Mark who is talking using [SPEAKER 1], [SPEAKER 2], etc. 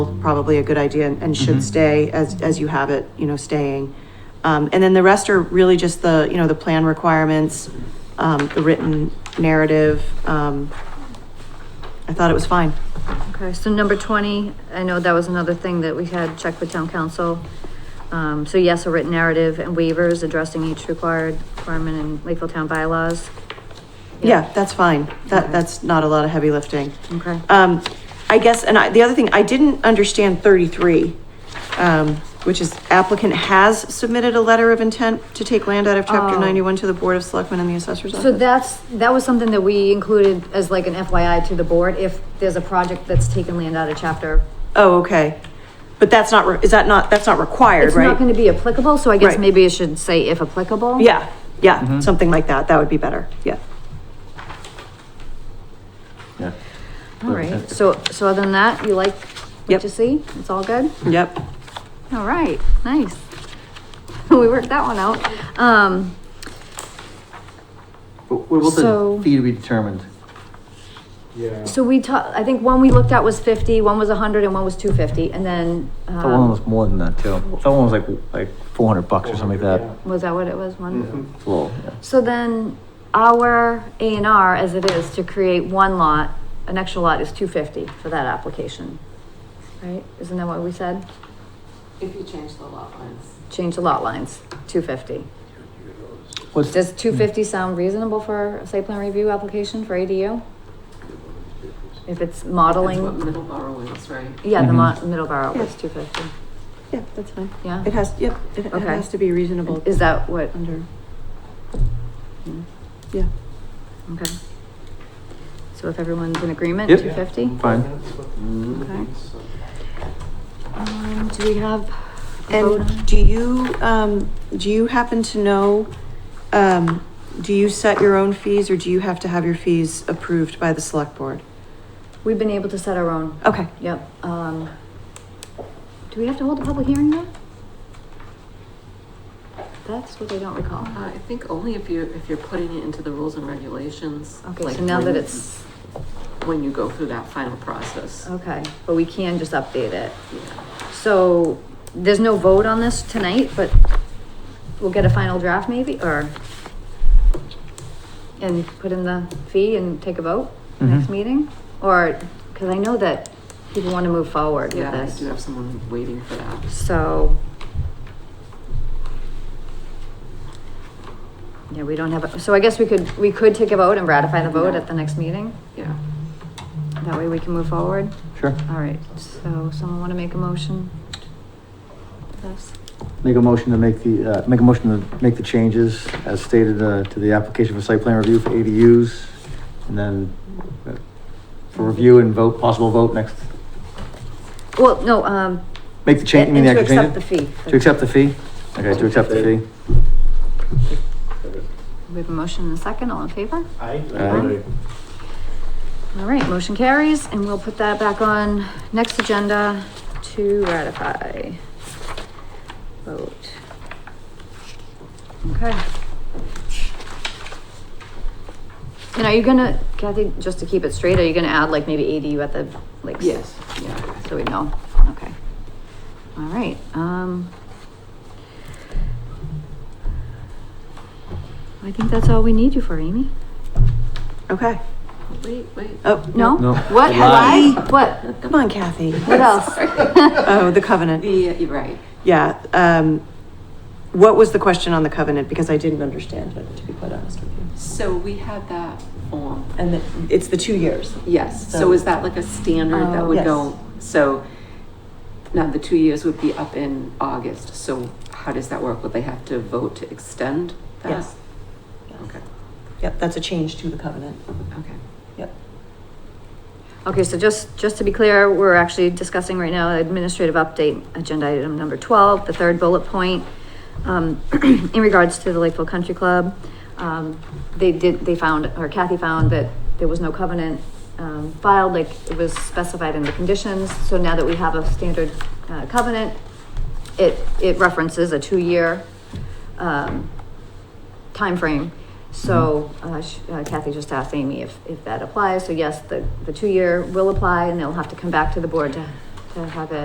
[SPEAKER 1] probably a good idea and and should stay as, as you have it, you know, staying. Um, and then the rest are really just the, you know, the plan requirements, um, the written narrative, um, I thought it was fine.
[SPEAKER 2] Okay, so number twenty, I know that was another thing that we had checked with town council. Um, so yes, a written narrative and waivers addressing each required requirement in Lakeville Town bylaws.
[SPEAKER 1] Yeah, that's fine. That, that's not a lot of heavy lifting.
[SPEAKER 2] Okay.
[SPEAKER 1] Um, I guess, and I, the other thing, I didn't understand thirty-three, um, which is applicant has submitted a letter of intent to take land out of chapter
[SPEAKER 2] Oh.
[SPEAKER 1] ninety-one to the Board of Selectmen and the Assessor's Office.
[SPEAKER 2] So that's, that was something that we included as like an FYI to the board, if there's a project that's taken land out of chapter.
[SPEAKER 1] Oh, okay. But that's not, re- is that not, that's not required,
[SPEAKER 2] It's
[SPEAKER 1] right?
[SPEAKER 2] not gonna be applicable, so I guess
[SPEAKER 1] Right.
[SPEAKER 2] maybe it should say if applicable.
[SPEAKER 1] Yeah, yeah, something like that. That would be better. Yeah.
[SPEAKER 3] Yeah.
[SPEAKER 2] All right, so, so other than that, you like
[SPEAKER 1] Yep.
[SPEAKER 2] what you see? It's all good?
[SPEAKER 1] Yep.
[SPEAKER 2] All right, nice. We worked that one out. Um,
[SPEAKER 3] What what was
[SPEAKER 2] So-
[SPEAKER 3] the fee to be determined?
[SPEAKER 4] Yeah.
[SPEAKER 2] so we ta- I think one we looked at was fifty, one was a hundred and one was two fifty, and then,
[SPEAKER 3] That Oh, one
[SPEAKER 2] um,
[SPEAKER 3] was more than that too. That one was like, like four hundred bucks or something like that.
[SPEAKER 2] was that what it was, one?
[SPEAKER 3] It's a little, yeah.
[SPEAKER 2] So then our A and R as it is to create one lot, an extra lot is two fifty for that application. Right? Isn't that what we said?
[SPEAKER 5] If you change the lot lines.
[SPEAKER 2] Change the lot lines, two fifty.
[SPEAKER 3] What's,
[SPEAKER 2] Does two fifty sound reasonable for a site plan review application for ADU? If it's
[SPEAKER 5] That's
[SPEAKER 2] modeling,
[SPEAKER 5] what Middleborough is, right?
[SPEAKER 2] yeah, the
[SPEAKER 3] Mm-hmm.
[SPEAKER 2] mo- middle borough
[SPEAKER 1] Yeah.
[SPEAKER 2] was two fifty,
[SPEAKER 1] Yeah, that's fine.
[SPEAKER 2] yeah?
[SPEAKER 1] It has, yep, it it
[SPEAKER 2] Okay.
[SPEAKER 1] has to be reasonable
[SPEAKER 2] Is that what,
[SPEAKER 1] under. Yeah.
[SPEAKER 2] okay. So if everyone's in agreement,
[SPEAKER 3] Yep.
[SPEAKER 2] two fifty?
[SPEAKER 3] fine.
[SPEAKER 2] Okay. Um, do we have a vote on-
[SPEAKER 1] And do you, um, do you happen to know, um, do you set your own fees or do you have to have your fees approved by the select board?
[SPEAKER 2] We've been able to set our own,
[SPEAKER 1] Okay.
[SPEAKER 2] yep, um. Do we have to hold a public hearing though? That's what I don't recall.
[SPEAKER 5] Uh, I think only if you, if you're putting it into the rules and regulations.
[SPEAKER 2] Okay,
[SPEAKER 5] like
[SPEAKER 2] so now that
[SPEAKER 5] when-
[SPEAKER 2] it's,
[SPEAKER 5] When you go through that final process.
[SPEAKER 2] okay, but we can just update it.
[SPEAKER 5] Yeah.
[SPEAKER 2] So, there's no vote on this tonight, but we'll get a final draft maybe, or? And put in the fee and take a vote next
[SPEAKER 3] Mhm.
[SPEAKER 2] meeting? Or, because I know that people want to move forward with
[SPEAKER 5] Yeah, I do
[SPEAKER 2] this,
[SPEAKER 5] have someone waiting for that.
[SPEAKER 2] so. Yeah, we don't have, a so I guess we could, we could take a vote and ratify the vote at the next meeting?
[SPEAKER 5] Yeah.
[SPEAKER 2] That way we can move forward?
[SPEAKER 3] Sure.
[SPEAKER 2] All right, so someone want to make a motion? Yes.
[SPEAKER 3] Make a motion to make the, uh, make a motion to make the changes as stated, uh, to the application for site plan review for ADUs. And then uh, for review and vote, possible vote next,
[SPEAKER 2] Well, no, um.
[SPEAKER 3] make the change, you mean the
[SPEAKER 2] and
[SPEAKER 3] actual
[SPEAKER 2] To
[SPEAKER 3] change?
[SPEAKER 2] accept the fee.
[SPEAKER 3] To accept the fee? Okay, to accept the fee.
[SPEAKER 2] We have a motion and a second, all in favor?
[SPEAKER 4] I.
[SPEAKER 3] Aye.
[SPEAKER 2] All right, motion carries, and we'll put that back on next agenda to ratify. Vote. Okay. And are you gonna, Kathy, just to keep it straight, are you gonna add like maybe ADU at the, like? s-
[SPEAKER 5] Yes, yeah.
[SPEAKER 2] So we know, okay. All right, um. I think that's all we need you for, Amy.
[SPEAKER 1] Okay.
[SPEAKER 5] Wait, wait.
[SPEAKER 1] Oh,
[SPEAKER 2] No?
[SPEAKER 3] No.
[SPEAKER 2] What, have I, what,
[SPEAKER 1] come on Kathy.
[SPEAKER 2] what else?
[SPEAKER 1] Oh, the covenant.
[SPEAKER 5] The, uh, you're right.
[SPEAKER 1] Yeah, um, what was the question on the covenant? Because I didn't understand it, to be quite honest with you.
[SPEAKER 5] So we had that form.
[SPEAKER 1] And the, it's the two years.
[SPEAKER 5] Yes,
[SPEAKER 1] So-
[SPEAKER 5] so is that like a standard that
[SPEAKER 2] Oh.
[SPEAKER 5] would
[SPEAKER 1] Yes.
[SPEAKER 5] go, so now the two years would be up in August, so how does that work? Would they have to vote to extend that?
[SPEAKER 1] Yes.
[SPEAKER 5] Okay,
[SPEAKER 1] Yep, that's a change to the covenant.
[SPEAKER 5] okay.
[SPEAKER 1] Yep.
[SPEAKER 2] Okay, so just, just to be clear, we're actually discussing right now administrative update, agenda item number twelve, the third bullet point. Um, in regards to the Lakeville Country Club, um, they did, they found, or Kathy found that there was no covenant, um, filed, like it was specified in the conditions. So now that we have a standard, uh, covenant, it, it references a two-year, um, timeframe. So uh, sh- uh, Kathy just asked Amy if, if that applies. So yes, the, the two-year will apply and they'll have to come back to the board to to have it